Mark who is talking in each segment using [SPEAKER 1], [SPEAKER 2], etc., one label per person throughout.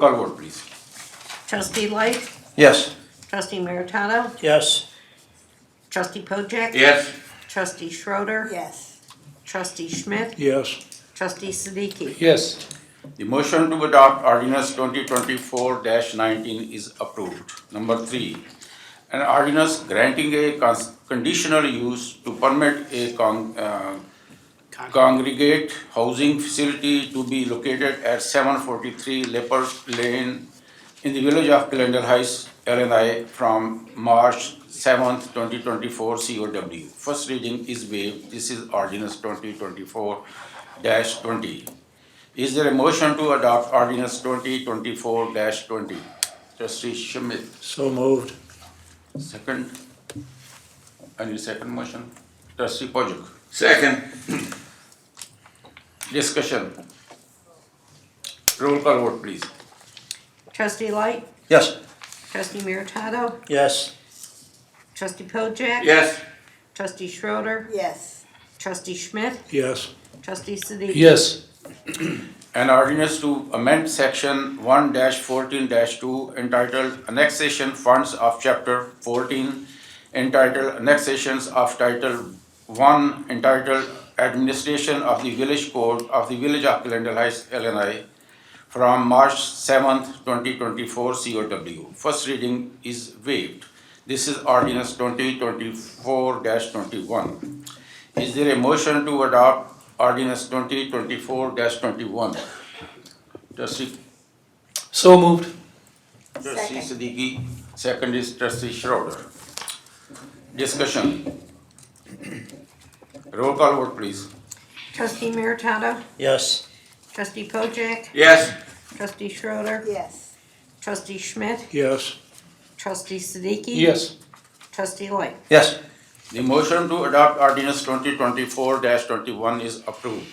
[SPEAKER 1] Call vote, please.
[SPEAKER 2] Trustee Light,
[SPEAKER 1] Yes.
[SPEAKER 2] trustee Meritano,
[SPEAKER 3] Yes.
[SPEAKER 2] trustee Pojek.
[SPEAKER 1] Yes.
[SPEAKER 2] Trustee Schroeder.
[SPEAKER 4] Yes,
[SPEAKER 2] Trustee Schmidt,
[SPEAKER 3] Yes.
[SPEAKER 2] trustee Siddiqui.
[SPEAKER 3] Yes.
[SPEAKER 1] The motion to adopt ordinance twenty twenty-four nineteen is approved. Number three, an ordinance granting a cons- conditional use to permit a con- uh, congregate housing facility to be located at seven forty-three Lepers Lane in the village of Glendale Heights, Illinois, from March seventh, twenty twenty-four COW. First reading is waived. This is ordinance twenty twenty-four twenty. Is there a motion to adopt ordinance twenty twenty-four twenty? Trustee Schmidt,
[SPEAKER 3] So moved.
[SPEAKER 1] second. Any second motion? Trustee Pojek,
[SPEAKER 5] Second.
[SPEAKER 1] discussion. Roll call vote, please.
[SPEAKER 2] Trustee Light,
[SPEAKER 1] Yes.
[SPEAKER 2] trustee Meritano,
[SPEAKER 3] Yes.
[SPEAKER 2] trustee Pojek.
[SPEAKER 5] Yes.
[SPEAKER 2] Trustee Schroeder,
[SPEAKER 4] yes,
[SPEAKER 2] trustee Schmidt,
[SPEAKER 3] Yes.
[SPEAKER 2] trustee Siddiqui.
[SPEAKER 3] Yes.
[SPEAKER 1] An ordinance to amend section one fourteen two entitled annexation funds of chapter fourteen entitled annexations of title one entitled administration of the village code of the village of Glendale Heights, Illinois from March seventh, twenty twenty-four COW. First reading is waived. This is ordinance twenty twenty-four twenty-one. Is there a motion to adopt ordinance twenty twenty-four twenty-one? Trustee,
[SPEAKER 3] So moved.
[SPEAKER 1] trustee
[SPEAKER 4] Second.
[SPEAKER 1] Siddiqui, second is trustee Schroeder. Discussion. Roll call vote, please.
[SPEAKER 2] Trustee Meritano,
[SPEAKER 3] Yes.
[SPEAKER 2] trustee Pojek,
[SPEAKER 5] Yes.
[SPEAKER 2] trustee Schroeder,
[SPEAKER 4] yes,
[SPEAKER 2] trustee Schmidt,
[SPEAKER 3] Yes.
[SPEAKER 2] trustee Siddiqui. Trustee Light,
[SPEAKER 1] Yes. The motion to adopt ordinance twenty twenty-four twenty-one is approved.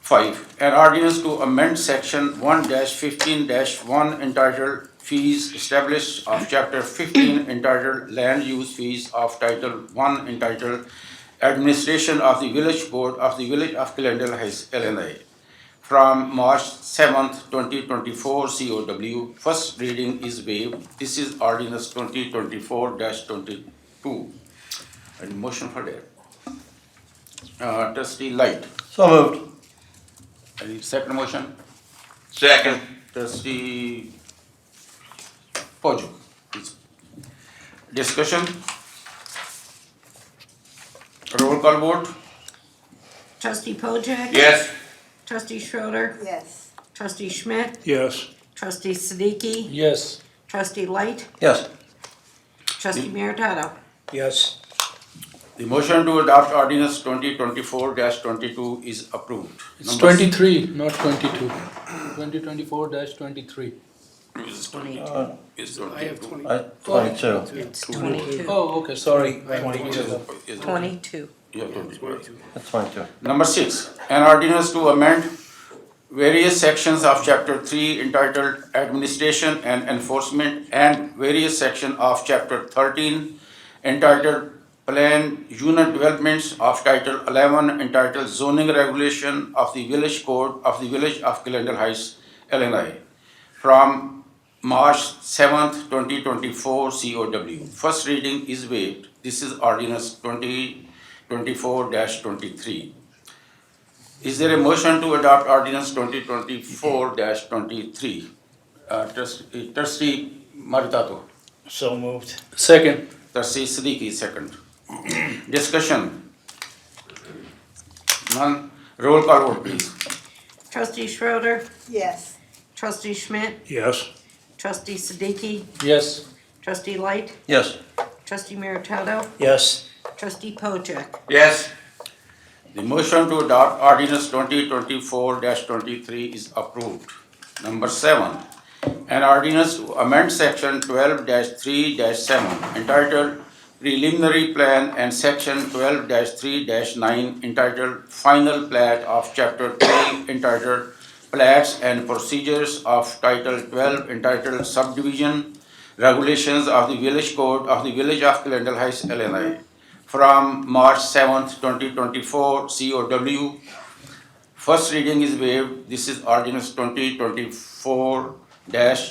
[SPEAKER 1] Five, an ordinance to amend section one fifteen one entitled fees established of chapter fifteen entitled land use fees of title one entitled administration of the village board of the village of Glendale Heights, Illinois from March seventh, twenty twenty-four COW. First reading is waived. This is ordinance twenty twenty-four twenty-two. And motion for that. Uh, trustee Light,
[SPEAKER 3] So moved.
[SPEAKER 1] any second motion?
[SPEAKER 5] Second.
[SPEAKER 1] Trustee Pojek, please. Discussion? Roll call vote?
[SPEAKER 2] trustee Pojek.
[SPEAKER 5] Yes.
[SPEAKER 2] Trustee Schroeder,
[SPEAKER 4] yes,
[SPEAKER 2] trustee Schmidt,
[SPEAKER 3] Yes.
[SPEAKER 2] trustee Siddiqui,
[SPEAKER 3] Yes.
[SPEAKER 2] trustee Light,
[SPEAKER 1] Yes.
[SPEAKER 2] trustee Meritano.
[SPEAKER 3] Yes.
[SPEAKER 1] The motion to adopt ordinance twenty twenty-four twenty-two is approved.
[SPEAKER 6] It's
[SPEAKER 1] Number
[SPEAKER 6] twenty-three, not twenty-two. Twenty twenty-four twenty-three.
[SPEAKER 1] Is twenty. Is
[SPEAKER 7] Uh, I have
[SPEAKER 1] twenty-two.
[SPEAKER 7] twenty.
[SPEAKER 6] Twenty-two.
[SPEAKER 2] It's twenty-two.
[SPEAKER 6] Oh, okay, sorry.
[SPEAKER 1] Is
[SPEAKER 2] Twenty-two.
[SPEAKER 1] Yeah, twenty-two.
[SPEAKER 6] That's twenty-two.
[SPEAKER 1] Number six, an ordinance to amend various sections of chapter three entitled Administration and Enforcement and various section of chapter thirteen entitled Plan Unit Developments of title eleven entitled Zoning Regulation of the Village Code of the Village of Glendale Heights, Illinois, from March seventh, twenty twenty-four COW. First reading is waived. This is ordinance twenty twenty-four twenty-three. Is there a motion to adopt ordinance twenty twenty-four twenty-three? Uh, trustee, trustee Maritato,
[SPEAKER 3] So moved.
[SPEAKER 6] Second.
[SPEAKER 1] trustee Siddiqui, second. Discussion? None, roll call vote please.
[SPEAKER 2] Trustee Schroeder,
[SPEAKER 4] yes,
[SPEAKER 2] trustee Schmidt,
[SPEAKER 3] Yes.
[SPEAKER 2] trustee Siddiqui,
[SPEAKER 6] Yes.
[SPEAKER 2] trustee Light,
[SPEAKER 6] Yes.
[SPEAKER 2] trustee Meritano,
[SPEAKER 3] Yes.
[SPEAKER 2] trustee Pojek,
[SPEAKER 5] Yes.
[SPEAKER 1] The motion to adopt ordinance twenty twenty-four twenty-three is approved. Number seven, an ordinance to amend section twelve three seven entitled preliminary plan and section twelve three nine entitled final plat of chapter three entitled plats and procedures of title twelve entitled subdivision regulations of the village code of the village of Glendale Heights, Illinois from March seventh, twenty twenty-four, COW. First reading is waived. This is ordinance twenty twenty-four dash